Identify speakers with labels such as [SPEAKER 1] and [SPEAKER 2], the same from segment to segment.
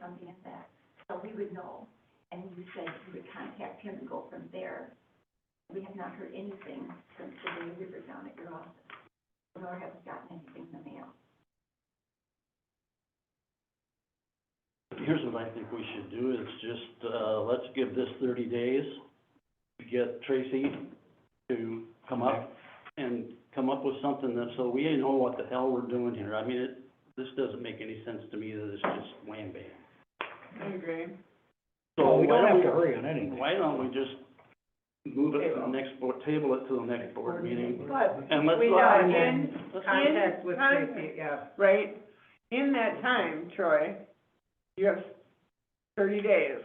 [SPEAKER 1] funding of that. So we would know, and you said you would contact him and go from there. We have not heard anything since the day we were down at your office, nor have we gotten anything in the mail.
[SPEAKER 2] Here's what I think we should do, is just, uh, let's give this thirty days to get Tracy to come up and come up with something that, so we know what the hell we're doing here. I mean, it, this doesn't make any sense to me that it's just wham bam. So
[SPEAKER 3] So we
[SPEAKER 2] why
[SPEAKER 3] don't have to
[SPEAKER 2] don't
[SPEAKER 3] hurry on
[SPEAKER 2] we,
[SPEAKER 3] anything.
[SPEAKER 2] why don't we just move it to the next board, table it to the next board meeting?
[SPEAKER 4] But
[SPEAKER 2] And let's.
[SPEAKER 4] we
[SPEAKER 2] let-
[SPEAKER 4] are in
[SPEAKER 2] let's-
[SPEAKER 4] contact with
[SPEAKER 5] contact.
[SPEAKER 4] Tracy, yeah, right? In that time, Troy, you have thirty days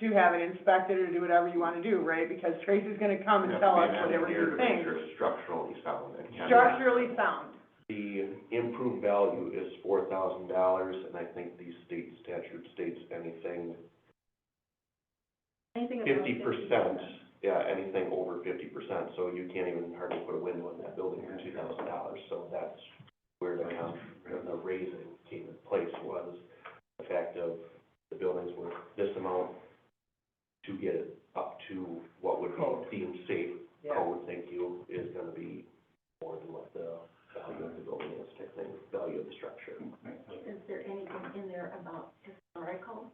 [SPEAKER 4] to have it inspected or do whatever you wanna do, right? Because Tracy's gonna come and tell us whatever you think.
[SPEAKER 6] Structurally sound. and kind of-
[SPEAKER 4] Structurally sound,
[SPEAKER 6] The improved value is four thousand dollars, and I think the state statute states anything
[SPEAKER 1] Anything about
[SPEAKER 6] fifty percent, yeah, anything over fifty percent, so you can't even hardly put a window in that building for two thousand dollars, so that's where the, con- the raising came in place was the fact of the buildings were this amount to get it up to what would be deemed safe
[SPEAKER 4] yeah.
[SPEAKER 6] code, thank you, is gonna be more than what the value of the building is, type thing, value of the structure.
[SPEAKER 1] Is there anything in there about historical?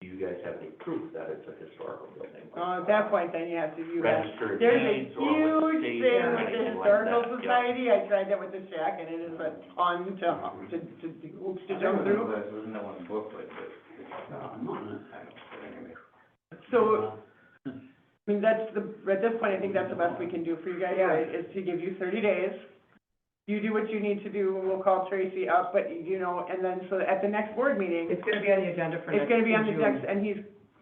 [SPEAKER 6] Do you guys have any proof that it's a historical building?
[SPEAKER 4] Uh, at that point, then you have to, you have,
[SPEAKER 6] Registered
[SPEAKER 4] there's a
[SPEAKER 6] deeds or with
[SPEAKER 4] huge
[SPEAKER 6] state
[SPEAKER 4] thing with
[SPEAKER 6] or
[SPEAKER 4] the
[SPEAKER 6] anything like
[SPEAKER 4] historical
[SPEAKER 6] that, yeah.
[SPEAKER 4] society, I tried that with the shack, and it is a ton to, to, to, to hoops to jump through.
[SPEAKER 5] Wasn't that one booklet that,
[SPEAKER 2] No, I'm not gonna-
[SPEAKER 4] So, I mean, that's the, at this point, I think that's the best we can do for you guys, right, is to give you thirty days. You do what you need to do, we'll call Tracy up, but, you know, and then, so at the next board meeting,
[SPEAKER 7] It's gonna be on the agenda for next,
[SPEAKER 4] it's gonna be on the
[SPEAKER 7] June.
[SPEAKER 4] next, and he's,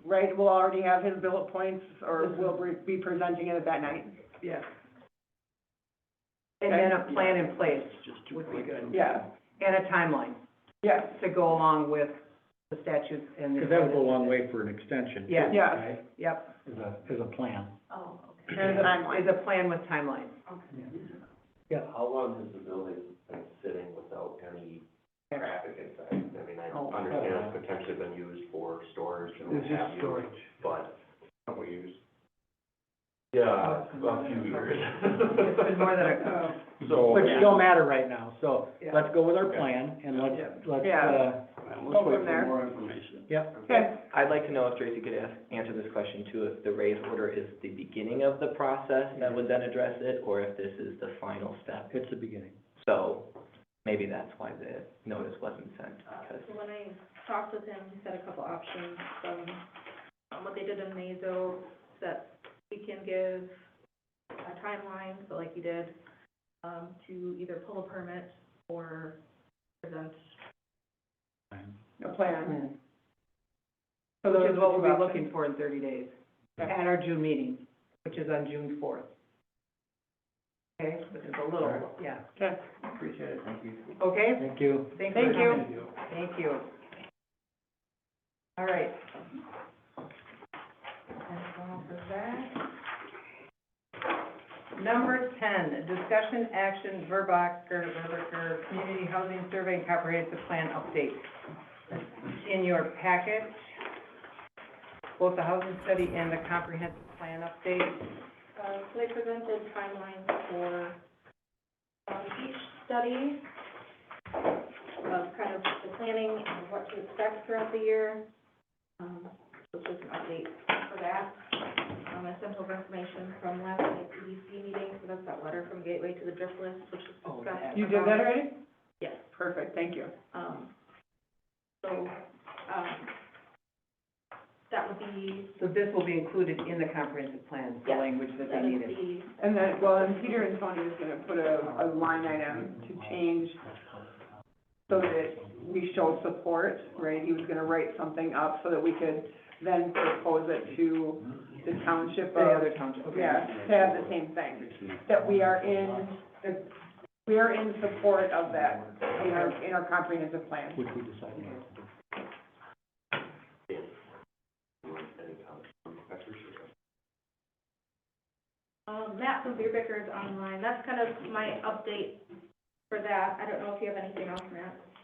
[SPEAKER 4] right, we'll already have his bullet points, or we'll re- be presenting it that night.
[SPEAKER 7] Yes. And then a plan in place
[SPEAKER 2] It's just too
[SPEAKER 7] would be
[SPEAKER 2] quick.
[SPEAKER 7] good,
[SPEAKER 4] Yeah,
[SPEAKER 7] and a timeline
[SPEAKER 4] yeah,
[SPEAKER 7] to go along with the statutes and the.
[SPEAKER 3] Because that would go a long way for an extension. too,
[SPEAKER 7] Yeah.
[SPEAKER 4] Yeah.
[SPEAKER 3] right?
[SPEAKER 7] Yep,
[SPEAKER 3] As a, as a plan.
[SPEAKER 1] Oh, okay.
[SPEAKER 4] and a timeline.
[SPEAKER 7] is a plan with timeline.
[SPEAKER 6] Yeah, how long has the building been sitting without any traffic inside? I mean, I
[SPEAKER 7] Oh.
[SPEAKER 6] understand it's potentially been used for storage and what have you, but don't we use? Yeah, a few years.
[SPEAKER 7] It's been more than a,
[SPEAKER 4] Oh.
[SPEAKER 6] So.
[SPEAKER 3] Which don't matter right now, so
[SPEAKER 7] Yeah.
[SPEAKER 3] let's go with our
[SPEAKER 6] Okay.
[SPEAKER 3] plan and let's, let's,
[SPEAKER 4] Yeah.
[SPEAKER 3] uh,
[SPEAKER 2] All right,
[SPEAKER 4] Go
[SPEAKER 2] Let's
[SPEAKER 4] from
[SPEAKER 2] wait for
[SPEAKER 4] there.
[SPEAKER 2] more information.
[SPEAKER 3] yep.
[SPEAKER 4] Okay,
[SPEAKER 8] I'd like to know if Tracy could ask, answer this question too, if the raise order is the beginning of the process that would then address it, or if this is the final step.
[SPEAKER 3] It's the beginning.
[SPEAKER 8] So maybe that's why the notice wasn't sent, because
[SPEAKER 9] So when I talked with him, he said a couple options, from, um, what they did in Mazo, that we can give a timeline, so like you did, um, to either pull a permit or present.
[SPEAKER 4] a plan,
[SPEAKER 7] plan,
[SPEAKER 4] so
[SPEAKER 7] which
[SPEAKER 4] those
[SPEAKER 7] is what we'll be
[SPEAKER 4] are
[SPEAKER 7] looking for in thirty days,
[SPEAKER 4] Yeah.
[SPEAKER 7] at our June meeting, which is on June fourth. Okay, which is a little, yeah,
[SPEAKER 4] Okay,
[SPEAKER 5] appreciate it, thank you.
[SPEAKER 7] okay,
[SPEAKER 3] Thank you.
[SPEAKER 7] thanks for
[SPEAKER 4] thank you.
[SPEAKER 7] coming. Thank you. All right. That's all for that. Number ten, discussion action, Verbacher, Verbacher, Community Housing Survey and Comprehensive Plan Update. In your packet, both the housing study and the comprehensive plan update.
[SPEAKER 9] Uh, so they presented timelines for, um, each study of kind of the planning and what to expect throughout the year. Um, so just an update for that. Um, I sent over information from last night's EDC meeting, so that's that letter from Gateway to the DRIP list, which is
[SPEAKER 7] Oh,
[SPEAKER 9] discussed.
[SPEAKER 4] you did that already?
[SPEAKER 9] Yes.
[SPEAKER 4] Perfect, thank you.
[SPEAKER 9] Um, so, um, that would be,
[SPEAKER 7] So this will be included in the comprehensive plan, the
[SPEAKER 9] Yeah.
[SPEAKER 7] language that
[SPEAKER 9] that
[SPEAKER 7] they
[SPEAKER 9] is
[SPEAKER 7] needed.
[SPEAKER 9] the
[SPEAKER 4] And then, well, and Peter and Tony is gonna put a, a line item to change so that we show support, right? He was gonna write something up so that we could then propose it to the township
[SPEAKER 7] The
[SPEAKER 4] of,
[SPEAKER 7] other township, okay.
[SPEAKER 4] yeah, to have the same thing. That we are in, that we are in support of that in our, in our comprehensive plan.
[SPEAKER 3] Which we decided not to do.
[SPEAKER 6] Any comments from professors or?
[SPEAKER 9] Um, Matt from Beer Bickers online, that's kind of my update for that, I don't know if you have anything else, Matt.